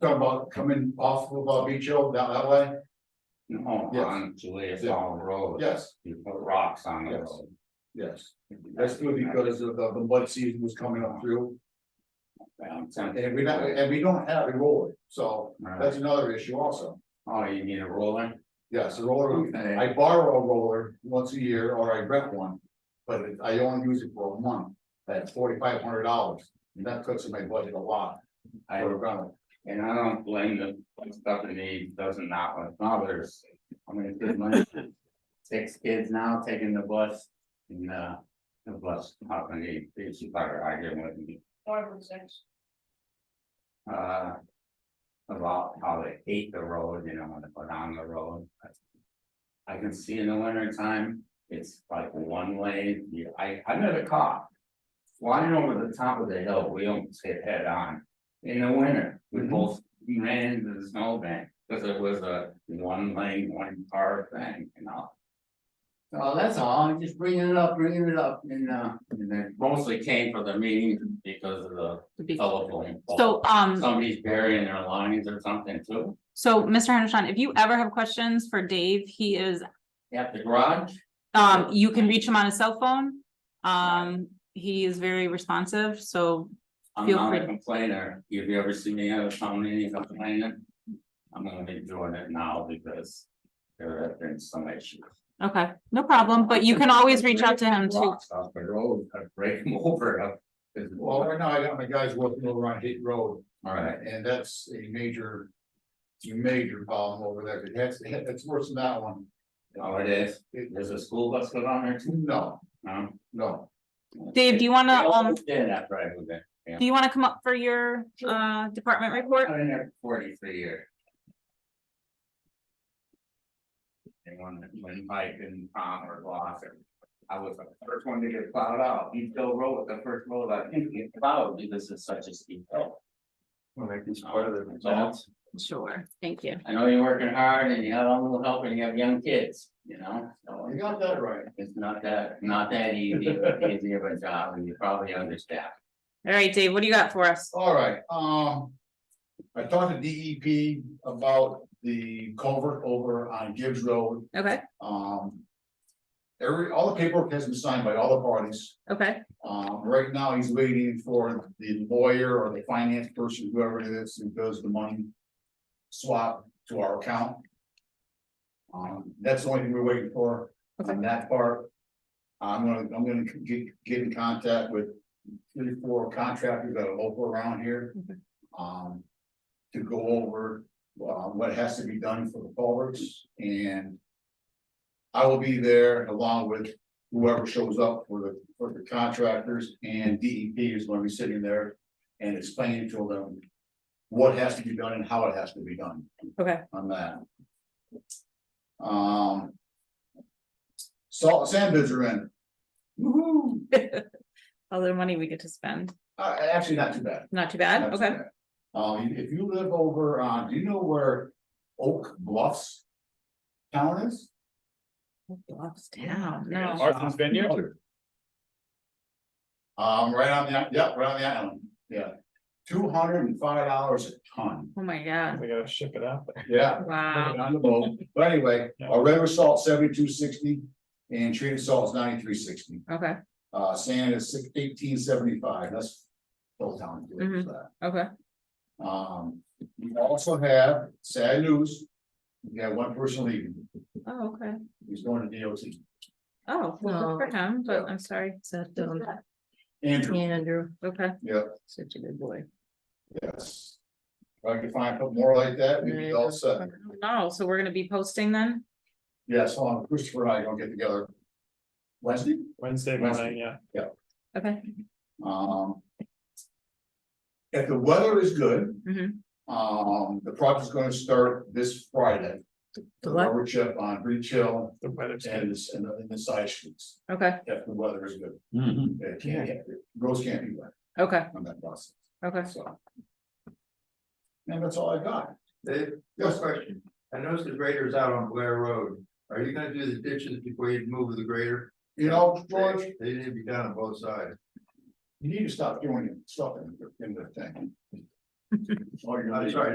talking about coming off of uh, Beach Hill down that way, No, Yes. on Julia Yeah. Farm Road. yes, You put rocks on the Yes. road. yes, that's good because of the the mud season was coming up through. And we don't, and we don't have a roller, so that's another issue also, Oh, you need a roller? yes, a roller, Okay. I borrow a roller once a year or I rent one. But it- I only use it for a month, that's forty five hundred dollars, and that cuts in my budget a lot I, for a rental. and I don't blame the stuff in the doesn't not want fathers. I mean, it's good money. Six kids now taking the bus and uh, the bus company, it's better, I get with me. Five or six. Uh. About how they hate the road, you know, when they put on the road. I can see in the winter time, it's like one lane, you- I, I met a cop. Flying over the top of the hill, we almost hit head on. In the winter, we Mhm. both ran into the snowbank, because it was a one lane, one car thing, you know. So that's all, I'm just bringing it up, bringing it up, and uh, and then mostly came for the meeting because of the telephone. pole. So, um, Somebody's burying their lines or something too, so Mr. Henderson, if you ever have questions for Dave, he is, at the garage, um, you can reach him on his cell phone. Um, he is very responsive, so I'm Feel not a free. complainer, if you ever see me at a town meeting complaining. I'm gonna be doing it now because there have been some issues. Okay, no problem, but you can always reach out to him too. Rocks Off the road, I break them over, uh, is- Well, all right now I got my guys working over on Hit Road, right, And that's a major. Major problem over there, It has- it's worse than that one. oh, it is, It- there's a school bus go down there too, No, no? no, Dave, do you wanna, um, Did after I moved in, do you wanna come up for your, uh, department report? I've been there forty-three years. And when, when Mike and Tom or Blossom, I was the first one to get plowed out, he still rode with the first road I think he plowed, because it's such a steep hill. Well, that is part part of the So, results. Sure, thank you. I know you're working hard and you have a little help and you have young kids, you know, so you got that right. it's not that, not that easy, easy of a job, and you're probably understaffed. All right, Dave, what do you got for us? All right, um. I talked to DEP about the culvert over on Gibbs Road, Okay, um. Every, all the paperwork has been signed by all the parties. okay, Um, right now, he's waiting for the lawyer or the finance person, whoever it is, who does the money. Swap to our account. Um, that's the only thing we're waiting for on that part. I'm gonna, I'm gonna get, get in contact with three, or four contractors that are local around here. Okay. Um, to go over, uh, what has to be done for the culverts and. I will be there along with whoever shows up for the, for the contractors and DEP is gonna be sitting there and explaining to them. What has to be done and how it has to be done okay, on that. Um. Salt sand bids are in, Woo-hoo. All the money we get to spend, uh, actually not too bad. not not too bad, too okay, bad. Um, if you live over, uh, do you know where Oak Bluffs town is? Bluffs down, Yeah. no, Arthur's Vineyard? Um, right on the, yeah, right on the island, yeah, two hundred and five dollars a ton, oh my god, We gotta ship it out. yeah. wow, On the boat, but anyway, our regular salt seventy-two sixty and treated salt is ninety-three sixty, okay, uh, sand is six- 1875. that's. Full town to do Mhm. for that, okay, um, we also have sad news, we have one person leaving, oh, okay. he's going to DOT, Oh, well, good for him, but I'm sorry. Sat down, Andrew, um, Andrew, Okay, such a good boy. yes. If I could find a couple more like that, we'd be all set, no, so we're gonna be posting then? yes, hold on, Christopher and I gonna get together. Wednesday? Wednesday morning, yeah. Okay, Um. If the weather is good. Mhm. Um, the project's gonna start this Friday. The what? rubber chip on Breach Hill The weather's and good. the, and the- and the side streets, okay, if the weather is good. Mhm. It can't, roads can't be wet okay, on that process, okay. so. And that's all I got. Dave, just a question. I noticed the grader's out on Blair Road. Are you gonna do the ditches before you move the grader? You know, George, They need to be done on both sides. you need to stop doing stuff in the, in the thing. Oh, you're- I'm sorry,